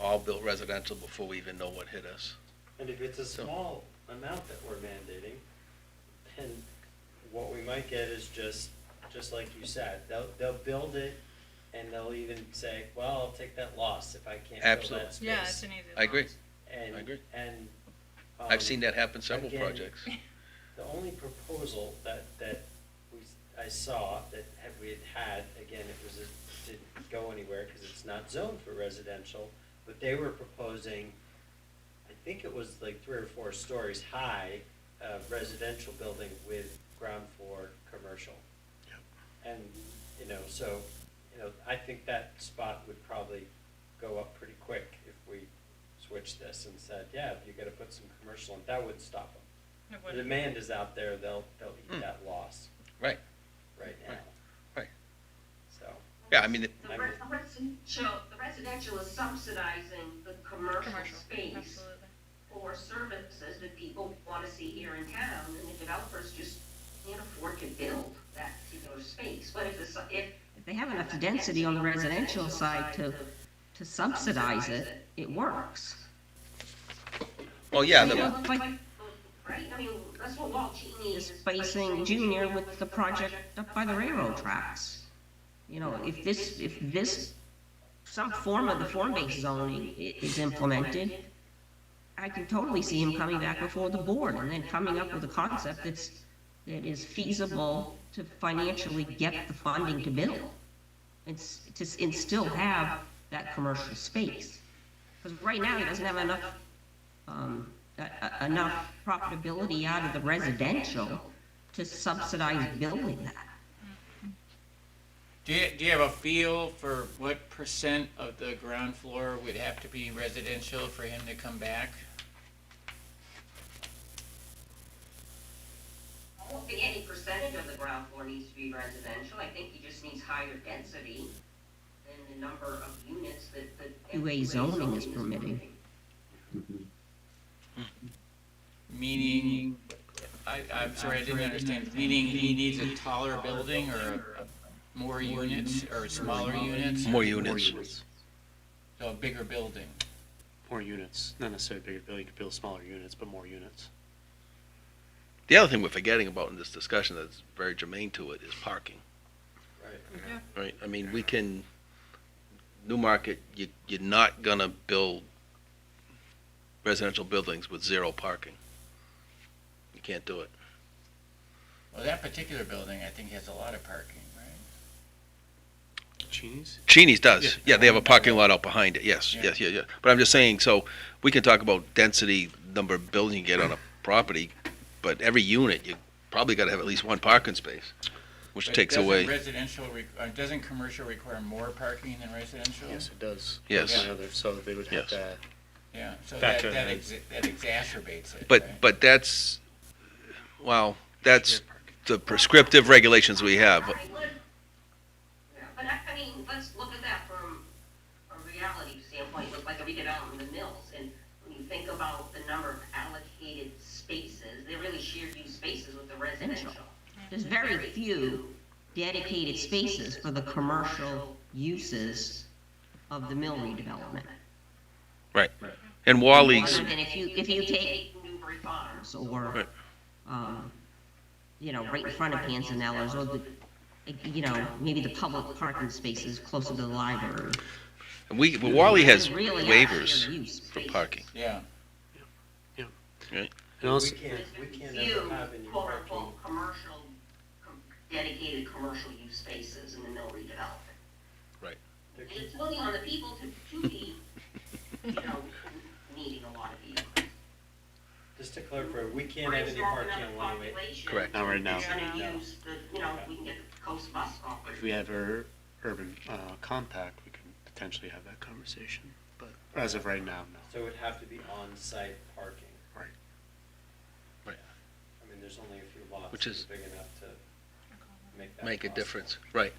all built residential before we even know what hit us. And if it's a So- small amount that we're mandating, then what we might get is just, just like you said, they'll, they'll build it and they'll even say, well, I'll take that loss if I can't fill Absolutely. that space. Yeah, it's an easy. I agree. loss. I And, agree. and. um, I've seen that happen several again, projects. The only proposal that, that we, I saw that had, we had had, again, it was, it didn't go anywhere because it's not zoned for residential, but they were proposing, I think it was like three or four stories high, uh, residential building with ground floor commercial. And, you know, so, you know, I think that spot would probably go up pretty quick if we switched this and said, yeah, you gotta put some commercial, in that would stop them. It The wouldn't. demand is out there, they'll, they'll Hmm. eat that loss Right, right now, right. so. Yeah, I mean, it- The res- residential, the residential is subsidizing the commercial Commercial, space absolutely. for services that people wanna see here in town, and the developers just can't afford to build that particular space, but if it's, if. If they have enough density on the residential side to, to subsidize it, it works. well, Oh, yeah, Yeah. the- know, like- Right, I mean, that's what Walt Cheney Is is. placing Junior with the project up by the railroad tracks. You know, if this, if this, some form of the form-based zoning i- is implemented, I can totally see him coming back before the board and then coming up with a concept that's, that is feasible to financially get the funding to build. It's, to, s- and still have that commercial space. Because right now, he doesn't have enough, um, e- e- enough profitability out of the residential to subsidize building that. Do you, do you have a feel for what percent of the ground floor would have to be residential for him to come back? I don't think any percentage of the ground floor needs to be residential, I think he just needs higher density than the number of units that, that. UA zoning is permitting. Meaning, I, I'm sorry, I didn't understand, meaning he needs a taller building or a- a- more units or smaller units? more units. So a bigger building? More units, not necessarily bigger building, you could build smaller units, but more units. The other thing we're forgetting about in this discussion that's very germane to it is parking, Right. right? I mean, we can, Newmarket, you, you're not gonna build residential buildings with zero parking. You can't do it. Well, that particular building, I think, has a lot of parking, right? Cheney's? Cheney's does. Yeah. Yeah, they have a parking lot out behind it. Yes, Yeah. yes, yeah, yeah. But I'm just saying, so we can talk about density, number of buildings you get on a property, but every unit, you probably gotta have at least one parking space, which But takes doesn't away, Residential, re- uh, doesn't commercial require more parking than residential? Yes, it does. Yes. Yeah, they're- So they would have Yes. to, Yeah, so that, Factor that that. exa- that exacerbates it, right? but, but that's, well, that's the prescriptive regulations we have. I would- Yeah, But I, I mean, let's look at that from a reality standpoint, look like a redevelopment of the mills, and when you think about the number of allocated spaces, they're really shared use spaces with the residential. There's very few dedicated spaces for the commercial uses of the mill redevelopment. And Wally's, Other than if you, if you take Newbury Farms, or, Right. um, you know, right in front of Panzanella's or the, you know, maybe the public parking spaces closer to the library. we, but Wally has Really out of shared waivers use. for parking. Yeah, and also, We can't, we can't few ever have any quote parking. unquote commercial, com- dedicated commercial use spaces in the mill redevelopment. There And can- it's really on the people to, to be, you know, needing a lot of vehicles. Just to clarify, we can't have any Small parking enough in Wally. population, Correct. not right now. It's gonna No. use the, you know, we can get the coast bus If operator. we have our urban, uh, compact, we can potentially have that conversation, but as of right now, no. So it would have to be on-site parking. Right. Right. I mean, there's only a few lots Which that is- are big enough to make that. Make a possible. difference, right.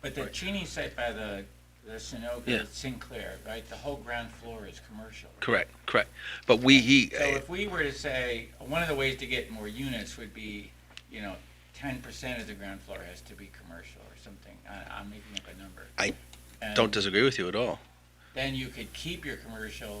but the Right. Cheney site by the, the Yeah. Sunoco Sinclair, right, the whole ground floor is commercial. Correct, correct. But we, he, So if we were to say, one of the ways to get more units would be, you know, ten percent of the ground floor has to be commercial or something, I, I'm making up a number. I And- don't disagree with you at all. then you could keep your commercial